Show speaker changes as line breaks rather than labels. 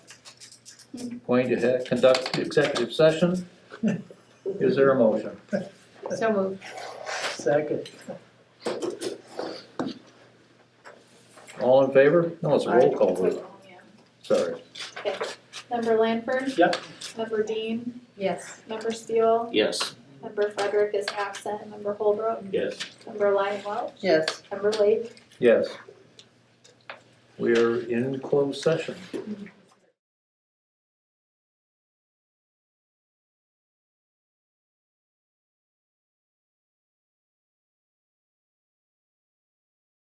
going to ha- conduct executive session. Is there a motion?
So moved.
Second.
All in favor? No, it's a roll call vote, sorry.
Member Lanford?
Yep.
Member Dean?
Yes.
Member Steele?
Yes.
Member Frederick is absent. Member Holbrook?
Yes.
Member Lyon Welch?
Yes.
Member Lake?
Yes. We are in closed session.